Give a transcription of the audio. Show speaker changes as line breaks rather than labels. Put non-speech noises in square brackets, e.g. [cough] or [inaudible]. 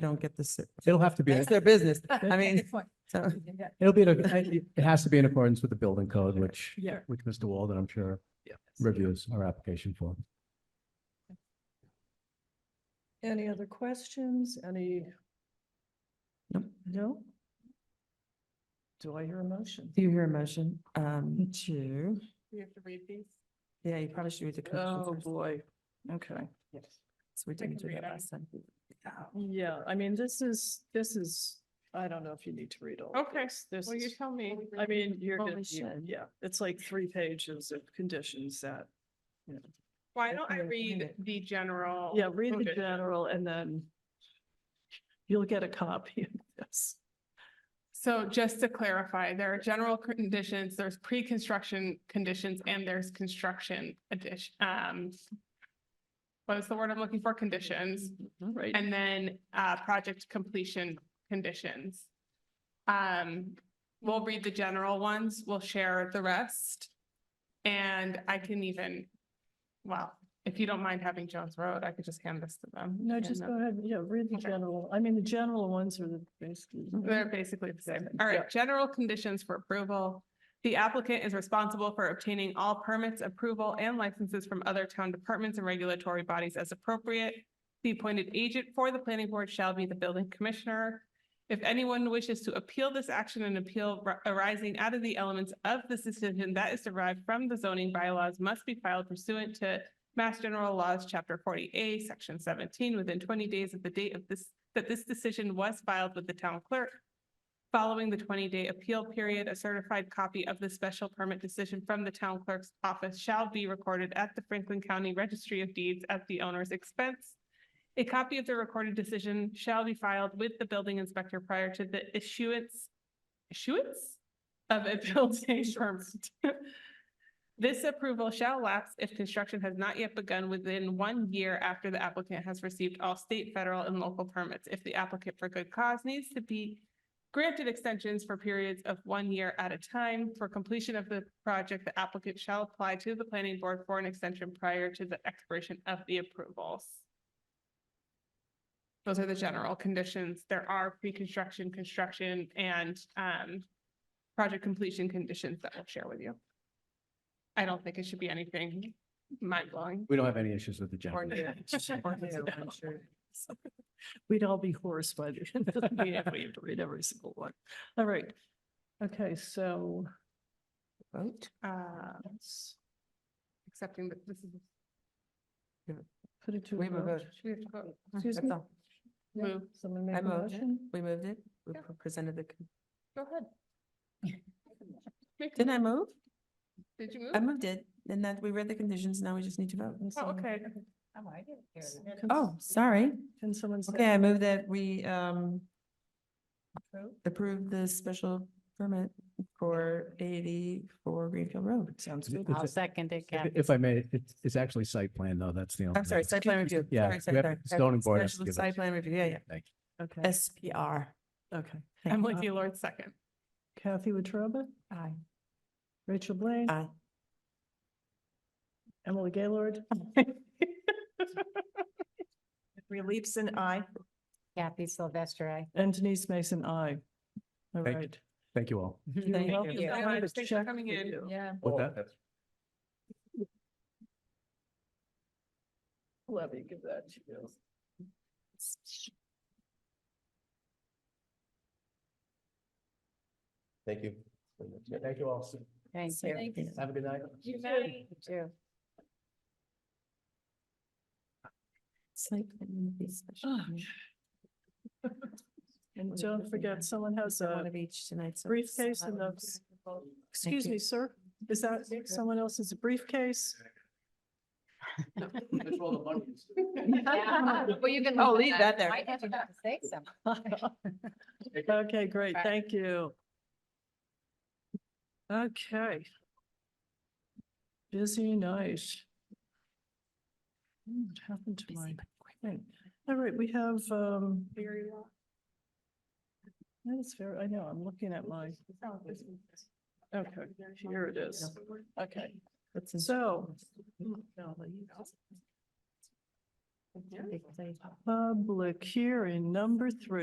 they don't get the, ser-
It'll have to be,
that's their
[laughs]
business. I mean,
Good point.
so,
Yeah,
it'll be, it has to be in accordance with the building code, which,
Yeah.
which Mr. Walden, I'm sure,
yes.
reviews our application for.
Any other questions? Any?
Nope.
No? Do I hear a motion?
do you hear a motion, um, to,
You have to read these?
yeah, you probably should read the
Oh,
conditions first.
boy. Okay.
So we didn't do
can read
that
it.
last time.
Yeah, I mean, this is, this is, I don't know if you need to read all. of
Okay,
this. This
Well, you
is-
tell me.
I mean, you're
Well,
gonna,
we
you-
should.
yeah, it's like three pages of conditions that, you know.
Why
I
don't I
can read
read
it.
the general?
Yeah, read the
Okay.
general and then you'll get a copy of this.
So just to clarify, there are general conditions, there's pre-construction conditions, and there's construction addition, um, what is the word I'm looking for? Conditions,
Right.
and then, uh, project completion conditions. Um, we'll read the general ones, we'll share the rest. And I can even, well, if you don't mind having Jones Road, I could just hand this to them.
No,
and
just
then-
go ahead. Yeah, read the
Okay.
general. I mean, the general ones are the basically.
They're basically the same.
Yeah.
All right, general conditions for approval. The applicant is responsible for obtaining all permits, approval, and licenses from other town departments and regulatory bodies as appropriate. The appointed agent for the planning board shall be the building commissioner. If anyone wishes to appeal this action and appeal ri- arising out of the elements of this decision that is derived from the zoning bylaws must be filed pursuant to Mass General Laws, Chapter forty A, Section seventeen, within twenty days of the date of this, that this decision was filed with the town clerk. Following the twenty-day appeal period, a certified copy of the special permit decision from the town clerk's office shall be recorded at the Franklin County Registry of Deeds at the owner's expense. A copy of the recorded decision shall be filed with the building inspector prior to the issuance, issuance of a [laughs] building permit. This approval shall lapse if construction has not yet begun within one year after the applicant has received all state, federal, and local permits. If the applicant for good cause needs to be granted extensions for periods of one year at a time. For completion of the project, the applicant shall apply to the planning board for an extension prior to the expiration of the approvals. Those are the general conditions. There are pre-construction, construction, and um, project completion conditions that we'll share with you. I don't think it should be anything mind-blowing.
We don't have any issues with the
or
general.
[laughs]
new.
Or new, I'm
[laughs]
sure.
We'd all be hoarse by the [laughs] end of the meeting if we had to read every single one. All right. Okay, so
Vote.
Uh,
let's
Accepting that this is,
put it to.
We have a vote.
should we have to vote?
Excuse
That's
me?
all.
Yeah,
Move.
Someone make
I
a
moved.
motion?
We moved it. We
Yeah.
pre- presented the, con-
Go ahead. Make-
didn't I move?
Did you
I
move?
moved it and then we read the conditions. Now we just need to vote.
Oh, okay.
Can-
Oh, sorry.
Can someone say?
Okay, I move that we um approve the special permit for eighty-four Greenfield Road.
Sounds
Is it-
good.
is it-
second it,
If if I may, it's, it's actually site plan though, that's the only.
I'm sorry, site plan review.
Yeah,
Sorry,
we
sorry,
have-
sorry.
the zoning board has to
Special
give
Site
us-
plan review, yeah, yeah.
Thank you.
Okay,
SPR.
okay.
Thank
Emily
you.
Gaylord, second.
Kathy Wetruba,
Aye.
Rachel Blaine,
Aye.
Emily Gaylord,
Reliefs and I. Kathy Sylvester, [laughs] I.
and Denise Mason, I. All
Thank-
right.
Thank you all.
You're
Thank you.
welcome.
Thank you so
I have
much.
a
Thanks for
check
coming
for
in.
you.
Yeah.
With that,
Let me give that to you.
Thank you.
Thank you all.
Thank you.
Have a good night.
You too.
Site plan review, special
Oh,
permit.
And don't forget, someone has
So One
a
of each tonight. so-
briefcase and
Um, [laughs]
those. Excuse
you.
me, sir, is that someone else's briefcase?
[laughs] Well, you can.
Oh, leave that there.
I have to say something. [laughs]
Okay, great,
Right.
thank you. Okay. Busy night. Hmm, What happened to my thing? All right, we have, um, that is fair, I know, I'm looking at my, okay, here it is. Okay,
That's in-
so Public hearing number three.